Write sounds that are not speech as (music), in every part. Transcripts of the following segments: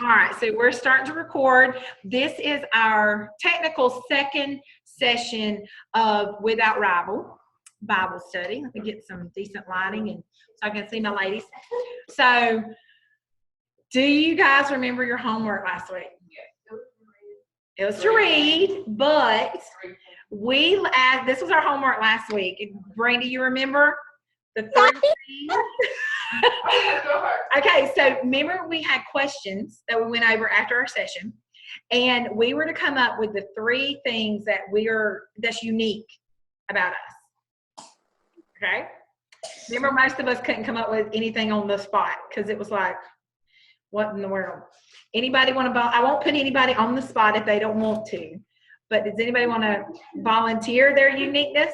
All right, so we're starting to record. This is our technical second session of Without Rival Bible Study. Let me get some decent lighting and so I can see my ladies. So, do you guys remember your homework last week? It was to read, but we, uh, this was our homework last week. Brandy, you remember? The three things? Okay, so remember we had questions that we went over after our session, and we were to come up with the three things that we are that's unique about us. Okay. Remember, most of us couldn't come up with anything on the spot because it was like, what in the world? Anybody want to? Vol- I won't put anybody on the spot if they don't want to. But does anybody want to volunteer their uniqueness,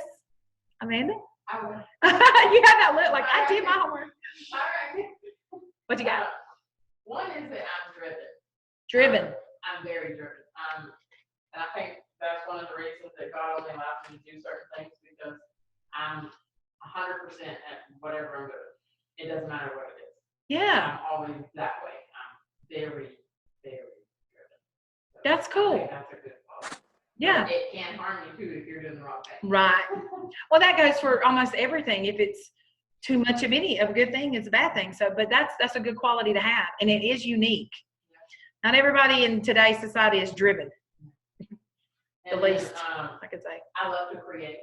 Amanda? (laughs) you had that look like I did my homework. What you got? One is that I'm driven. Driven. I'm very driven. Um, and I think that's one of the reasons that God only allows me to do certain things because I'm a hundred percent at whatever I'm doing. It doesn't matter what it is. Yeah. I'm always that way. I'm very, very driven. So That's I cool. think That's a good quality. Yeah. It can harm you too if you're doing the wrong thing. Right. Well, that goes for almost everything. If it's too much of any of a good thing, it's a bad thing. So, but that's that's a good quality to have, and it is unique. Not everybody in today's society is driven. And (laughs) The then, least. Um, I could say I love to create.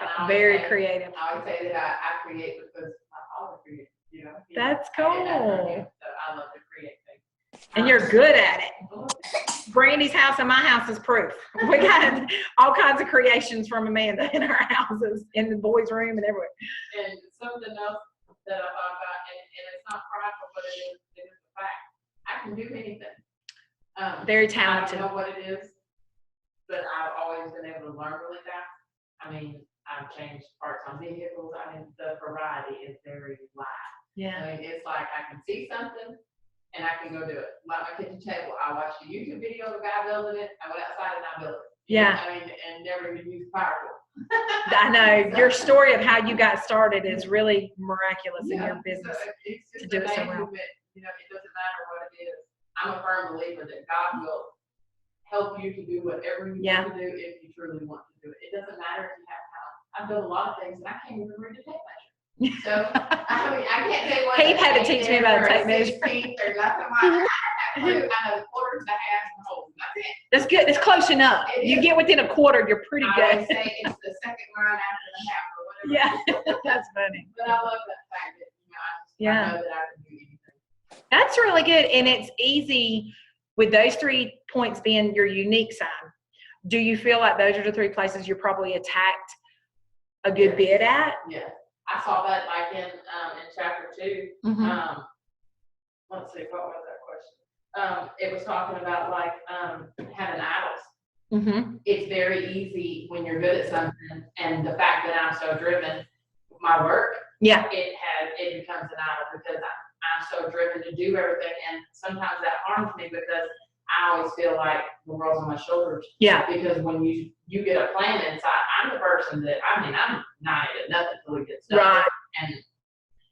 And I always very say- creative. I always say that I, I create because my father created, you know. he- That's I get that from cool. him, So I love to create things. And you're good at it. Um, Brandy's house and my house is proof. (laughs) We got all kinds of creations from Amanda in our houses, in the boys' room, and everywhere. And something else that I thought about, and, and it's not prideful, but it is, it is a fact. I can do anything. Um, Very I talented. don't know what it is, but I've always been able to learn really fast. I mean, I've changed parts on vehicles. I mean, the variety is very wide. Yeah. I mean, it's like I can see something and I can go do it. Like my kitchen table, I watched a YouTube video of a guy building it. I went outside and I built it. Yeah. I mean, and never even used firewood. I know your story of how you got started is really miraculous in your Yeah, business. so It's to just do it so well. amazing that, you know, it doesn't matter what it is. I'm a firm believer that God will help you to do whatever you Yeah. want to do if you truly want to do it. It doesn't matter if you have talent. I've done a lot of things and I can't even read a tape measure. So, I mean, I can't say what. Heath had to an teach me eighth about a or tape measure. sixteenth or nothing like that. (laughs) I know quarters, the halves, and wholes. That's it. That's good. It's close enough. It You is. get within a quarter, you're pretty I good. always say it's the second line after the half or whatever. (laughs) Yeah, that's funny. But I love that fact that, you know, I just, Yeah. I know that I can do anything. That's really good. And it's easy with those three points being your unique sign. Do you feel like those are the three places you're probably attacked a good bit at? Yeah, I saw that like in, um, in chapter two. Mm-hmm. Um, let's see, what was that question? Um, it was talking about like, um, having idols. Mm-hmm. It's very easy when you're good at something and the fact that I'm so driven, my work, Yeah. it has, it becomes an idol because I, I'm so driven to do everything and sometimes that harms me because I always feel like the world's on my shoulders. Yeah. Because when you, you get a plan inside, I'm the person that, I mean, I'm not at nothing till it gets done. Right. And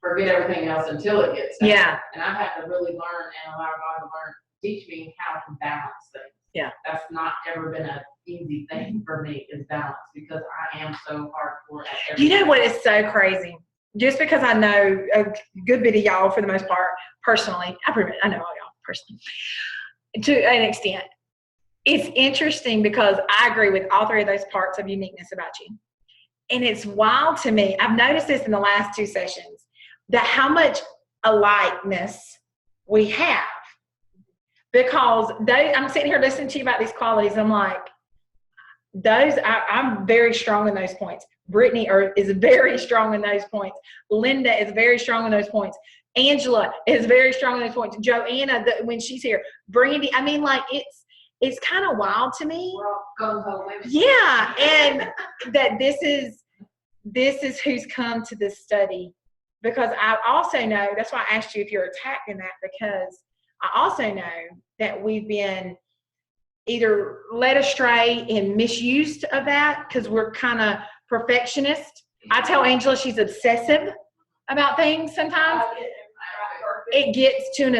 forget everything else until it gets done. Yeah. And I've had to really learn and allow God to learn, teach me how to balance things. Yeah. That's not ever been an easy thing for me is balance because I am so hardcore at everything. You know what is so crazy? Just because I know a good bit of y'all for the most part, personally, I pretty much, I know all y'all personally to an extent. It's interesting because I agree with all three of those parts of uniqueness about you. And it's wild to me. I've noticed this in the last two sessions that how much alikeness we have. Because they, I'm sitting here listening to you about these qualities. I'm like, those I, I'm very strong in those points. Brittany are, is very (laughs) strong in those points. Linda is very strong in those points. Angela is very strong in those points. Joanna, the, when she's here, Brandy. I mean, like it's it's kind of wild to me. We're all gung ho women. Yeah, and that this is this is who's come to this study because I also know that's why I asked you if you're attacked in that because I also know that we've been either led astray and misused of that because we're kind of perfectionist. I tell Uh, Angela she's obsessive about things sometimes. I get it. I- It gets to an